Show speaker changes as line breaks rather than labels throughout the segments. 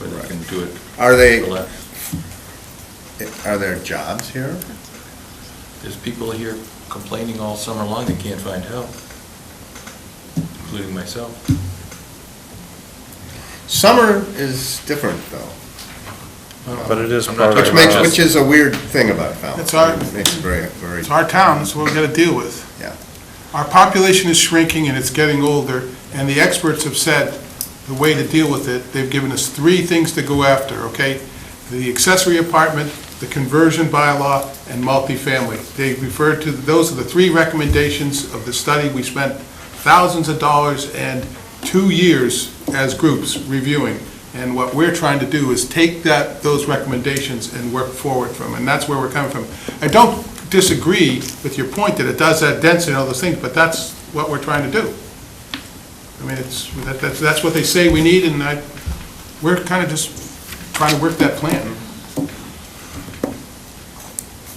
where they
Right.
can do it.
Are they,
relax.
are there jobs here?
There's people here complaining all summer long they can't find help, including myself.
Summer is different though,
But it is
I'm not
part of
which
talking
makes,
about
which is a weird thing about Falmouth.
It's our-
It Makes it very, very.
It's our town, that's what we've got to deal with.
Yeah.
Our population is shrinking and it's getting older, and the experts have said the way to deal with it, they've given us three things to go after, okay? The accessory apartment, the conversion bylaw, and multifamily. They refer to, those are the three recommendations of the study. We spent thousands of dollars and two years as groups reviewing. And what we're trying to do is take that, those recommendations and work forward from, and that's where we're coming from. I don't disagree with your point that it does add density and all those things, but that's what we're trying to do. I mean, it's, that- that's, that's what they say we need, and I, we're kind of just trying to work that plan.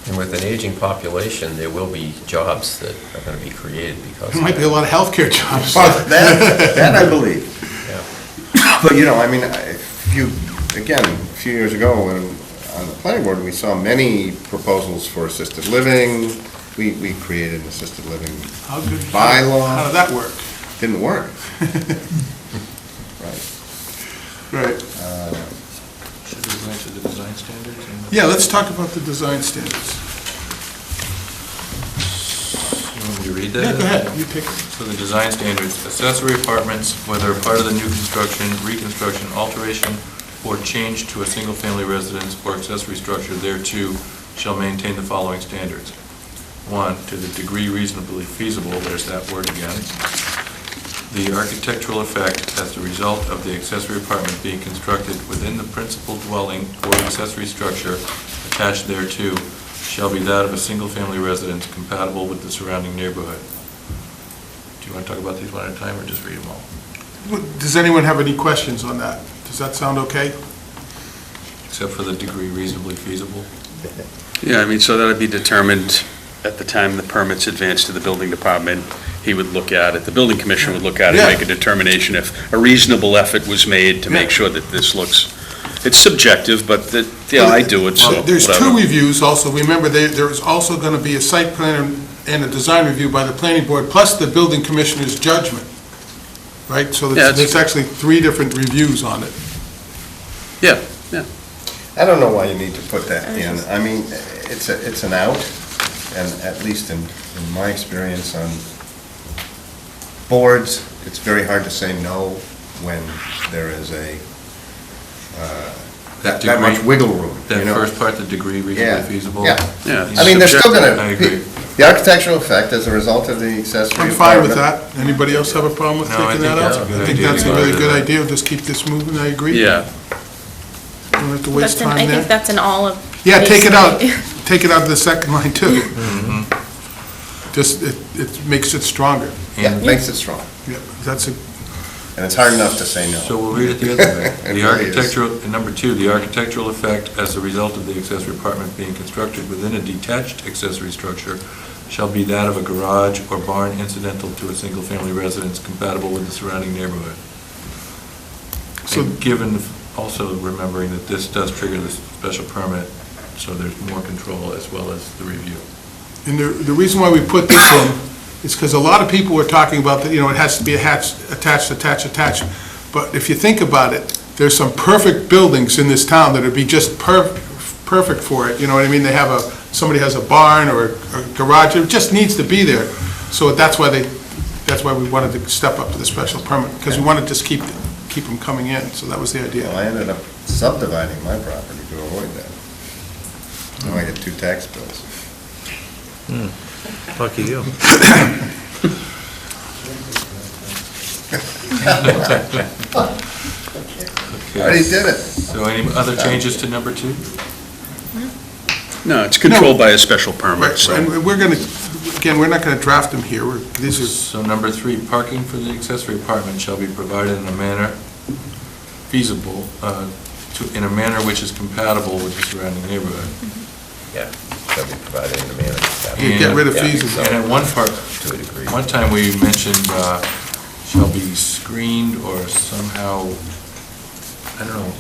And with an aging population, there will be jobs that are going to be created because.
There might be a lot of healthcare jobs.
Well, that, that I believe.
Yeah.
But, you know, I mean, I- if you, again, a few years ago, when, on the planning board, we saw many proposals for assisted living. We, we created an assisted living,
How good-
Bylaw.
How did that work?
didn't work. Right.
Right.
Should we go into the design standards? and-
Yeah, let's talk about the design standards.
You want me to read that?
Yeah, go ahead, you pick.
So the design standards, accessory apartments, whether part of the new construction, reconstruction, alteration, or change to a single-family residence or accessory structure thereto, shall maintain the following standards. One, to the degree reasonably feasible, there's that word again. The architectural effect as the result of the accessory apartment being constructed within the principal dwelling or accessory structure attached thereto shall be that of a single-family residence compatible with the surrounding neighborhood. Do you want to talk about these one at a time, or just read them all?
Does anyone have any questions on that? Does that sound okay?
Except for the degree reasonably feasible?
Yeah, I mean, so that'd be determined at the time the permit's advanced to the building department. He would look at it, the building commission would look at it,
Yeah.
make a determination if a reasonable effort was made to make
Yeah.
sure that this looks, it's subjective, but that, yeah, I do it, so.
There's two
whatever.
reviews also, remember, there, there is also gonna be a site plan and a design review by the planning board, plus the building commissioner's judgment, right? So
Yeah,
there's,
it's-
there's actually three different reviews on it.
I don't know why you need to put that in. I mean, it's a, it's an out, and at least in, in my experience on boards, it's very hard to say no when there is a, uh, that that much
Degree-
wiggle room, you
That
know?
first part, the degree
Yeah,
reasonably feasible?
yeah.
Yeah.
I mean, they're still gonna.
I agree.
The architectural effect as a result of the accessory.
I'm fine with
apartment-
that. Anybody else have a problem with
No, I think
taking that
that's
out?
a good
I think
idea.
that's a really good
Yeah.
idea, just keep this moving, I agree.
Yeah,
Don't have to
That's
waste
in- I
time
think
there.
that's in all of.
Yeah, take it out,
basically.
take it out of the second line too.
Mm-hmm.
Just, it, it makes it stronger.
Yeah, makes it strong,
Yeah, that's a,
and it's hard enough to say no.
So we'll read it the other way.
It
The
really is.
architectural, and number two, the architectural effect as a result of the accessory apartment being constructed within a detached accessory structure shall be that of a garage or barn incidental to a single-family residence compatible with the surrounding neighborhood.
So-
And given, also remembering that this does trigger the special permit, so there's more control as well as the review.
And the, the reason why we put this in is because a lot of people were talking about that, you know, it has to be attached, attached, attached, attached. But if you think about it, there's some perfect buildings in this town that would be just per, perfect for it, you know what I mean? They have a, somebody has a barn or a garage, it just needs to be there. So that's why they, that's why we wanted to step up to the special permit, because we want to just keep, keep them coming in, so that was the
Well,
idea.
I ended up subdividing my property to avoid that. Now I get two tax bills.
Lucky you.
I already
Okay.
did it.
So any other changes to number two?
no, it's controlled by a special permit,
Right,
so.
And we're going to, again, we're not going to draft them here, we're, these are
So number three, parking for the accessory apartment shall be provided in a manner feasible, uh, to- in a manner which is compatible with the surrounding neighborhood.
Yeah, shall be provided in the manner. that-
You get rid of
Yeah,
fees.
And at one part,
To a degree.
one time we mentioned uh, shall be screened or somehow, I don't know,